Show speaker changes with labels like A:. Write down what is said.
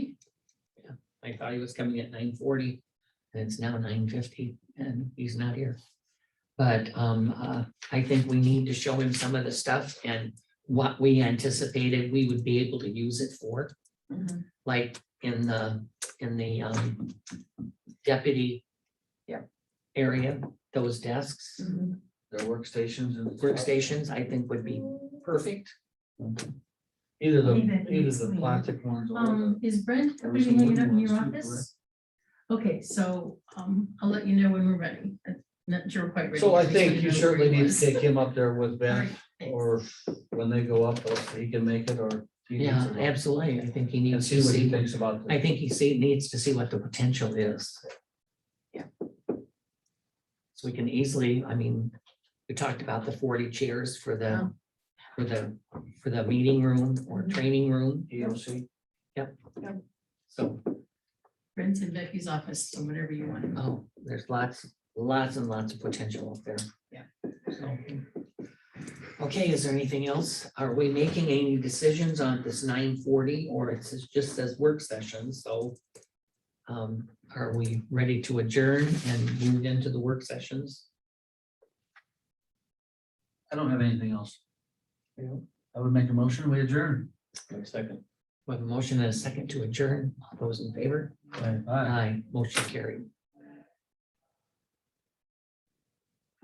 A: I thought he was coming at nine forty, and it's now nine fifty, and he's not here. But um, uh, I think we need to show him some of the stuff and what we anticipated we would be able to use it for,
B: Mhm.
A: like in the, in the um deputy
B: Yeah.
A: area, those desks,
B: Mhm.
C: Their workstations and.
A: Mm-hmm. workstations, I think would be perfect.
C: Either the,
D: Maybe that
C: either
D: needs
C: the
D: cleaning.
C: plastic ones or
D: Um,
C: the.
D: is Brent going to
C: Every
D: be
C: single
D: hanging out in
C: one of
D: your
C: those two,
D: office? Okay, so, um, I'll let you know when we're ready. I'm not sure quite ready.
C: So I
D: just wanna
C: think you
D: know
C: certainly
D: where he
C: need
D: was.
C: to take him up there with
D: All
C: Ben,
D: right, thanks.
C: or when they go up, or he can make it, or. he needs
A: Yeah,
C: to go.
A: absolutely. I think he
C: And
A: needs
C: see
A: to
C: what he
A: see,
C: thinks about.
A: I
C: this.
A: think he see, needs to see what the potential is.
B: Yeah.
A: So we can easily, I mean, we talked about the forty chairs for
B: Yeah.
A: the, for the, for the meeting room or
B: Mhm.
A: training room,
C: EOC.
A: so,
D: Brent's in Becky's office, so whenever you want.
A: oh, there's lots, lots and lots of potential up there.
B: Yeah.
A: So. Okay, is there anything else? Are we making any decisions on this nine forty or it says- just says work session, so. Um, are we ready to adjourn and move into the work sessions?
C: I don't have anything else. I would make a motion, we adjourn.
A: Second. With a motion and a second to adjourn, all those in favor?
C: Aye.
A: Aye, motion carried.